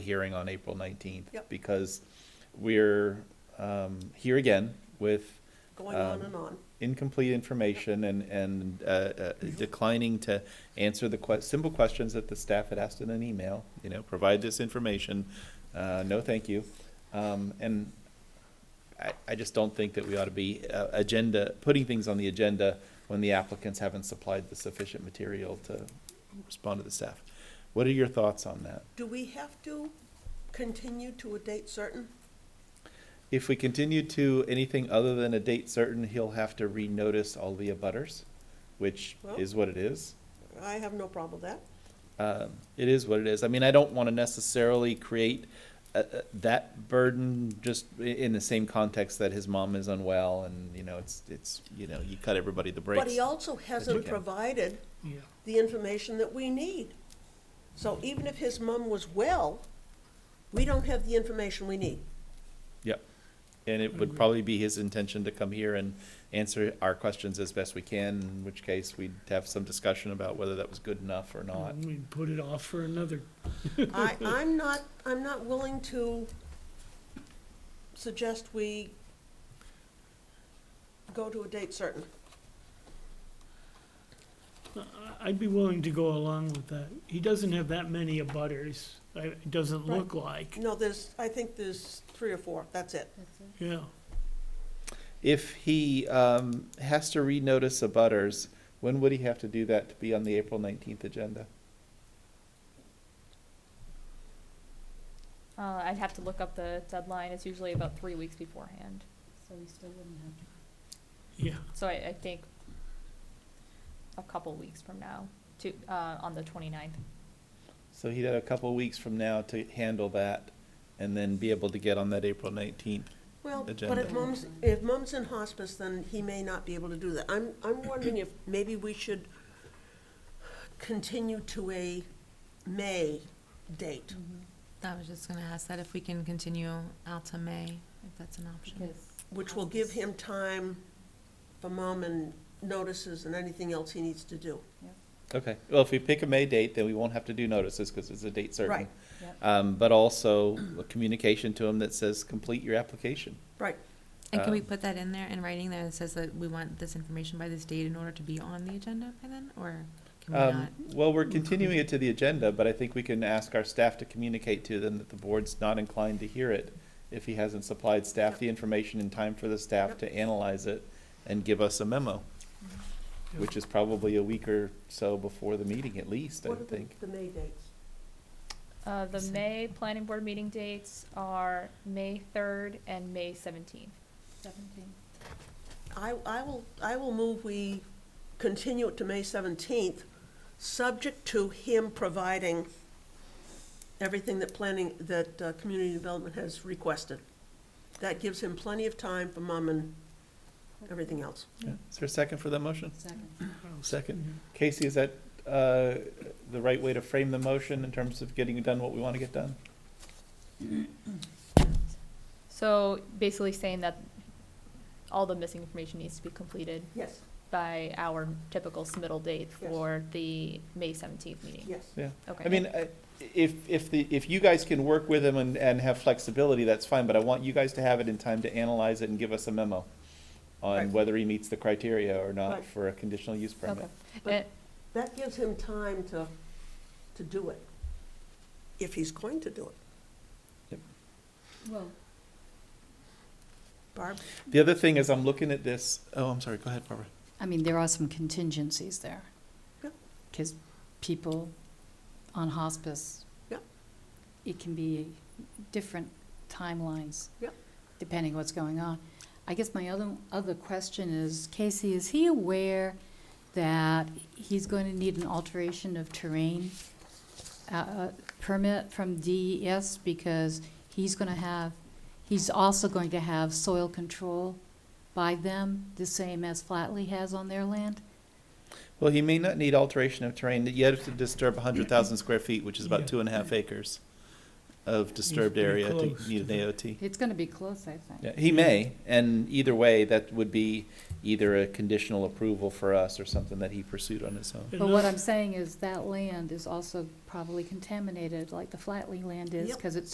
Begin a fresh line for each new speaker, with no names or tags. hearing on April 19th.
Yep.
Because we're um, here again with
going on
Um,
and on.
incomplete information and, and uh, uh, declining to answer the que, simple questions that the staff had asked in an email, you know, provide this information, uh, no thank you. Um, And I, I just don't think that we ought to be uh, agenda, putting things on the agenda when the applicants haven't supplied the sufficient material to respond to the staff. What are your thoughts on that?
Do we have to continue to a date certain?
If we continue to anything other than a date certain, he'll have to renotice all the abutters, which
Well.
is what it is.
I have no problem with that.
Um, It is what it is. I mean, I don't want to necessarily create uh, uh, that burden just i- in the same context that his mom is unwell and, you know, it's, it's, you know, you cut everybody the
But
brakes.
he also hasn't
can.
provided
Yeah,
the information that we need. So even if his mum was well, we don't have the information we need.
Yep. And it would probably be his intention to come here and answer our questions as best we can, in which case we'd have some discussion about whether that was good enough or not.
we put it off for another,
I, I'm not, I'm not willing to suggest we go to a date certain.
I- I'd be willing to go along with that. He doesn't have that many abutters, I- it doesn't look like,
No, there's, I think there's three or four, that's it.
yeah.
If he um, has to renotice a butters, when would he have to do that to be on the April nineteenth agenda?
Uh, I'd have to look up the deadline. It's usually about three weeks beforehand.
So we still wouldn't have
Yeah,
So I, I think a couple weeks from now to, uh, on the 29th.
So he'd have a couple of weeks from now to handle that and then be able to get on that April nineteenth.
Well, but
agenda.
if mom's, if mom's in hospice, then he may not be able to do that. I'm, I'm wondering if maybe we should continue to a May date.
I was just gonna ask that if we can continue out to May, if that's an option.
because.
Which will give him time for mom and notices and anything else he needs to do.
Okay, well, if we pick a May date, then we won't have to do notices because it's a date certain.
Right.
Yep.
Um, but also a communication to him that says, complete your application.
Right,
And can we
Um,
put that in there in writing that it says that we want this information by this date in order to be on the agenda by then, or can we
Um,
not?
well, we're continuing it to the agenda, but I think we can ask our staff to communicate to them that the board's not inclined to hear it if he hasn't supplied staff the information in time for the staff
Yep.
to analyze it and give us a memo,
Mhm.
which is probably a week or so before the meeting at least, I
what are
would
the,
think.
the May dates?
Uh, the
Awesome.
May planning board meeting dates are May 3rd and May 17th.
Seventeen.
I, I will, I will move we continue it to May seventeenth, subject to him providing everything that planning, that, uh, community development has requested. That gives him plenty of time for mom and everything else.
Yeah. Is there a second for that motion?
Second.
I'll
Second. Casey, is that, uh, the right way to frame the motion in terms of getting done what we want to get done?
So basically saying that all the missing information needs to be completed
Yes,
by our typical submittal date
Yes.
for the May 17th meeting.
yes.
Yeah.
Okay.
I mean, I- if, if the, if you guys can work with him and, and have flexibility, that's fine, but I want you guys to have it in time to analyze it and give us a memo
Right.
on whether he meets the criteria or not
Right.
for a conditional use
Okay.
permit.
And-
That gives him time to, to do it, if he's going to do it.
Well,
Barb?
The other thing is, I'm looking at this, oh, I'm sorry, go ahead, Barbara.
I mean, there are some contingencies there.
Yep.
Because people on hospice.
Yep.
It can be different timelines.
Yep.
Depending what's going on. I guess my other, other question is, Casey, is he aware that he's going to need an alteration of terrain uh, uh, permit from DES? Because he's going to have, he's also going to have soil control by them, the same as Flatley has on their land?
Well, he may not need alteration of terrain, yet to disturb hundred thousand square feet, which is
Yeah.
about two and a half acres. of disturbed
pretty
area to
close
need
to
an AOT?
It's gonna be close, I think.
Yeah, He may, and either way, that would be either a conditional approval for us or something that he pursued on his own.
But what
Enough-
I'm saying is that land is also probably contaminated, like the Flatley land is,
Yep.
because it's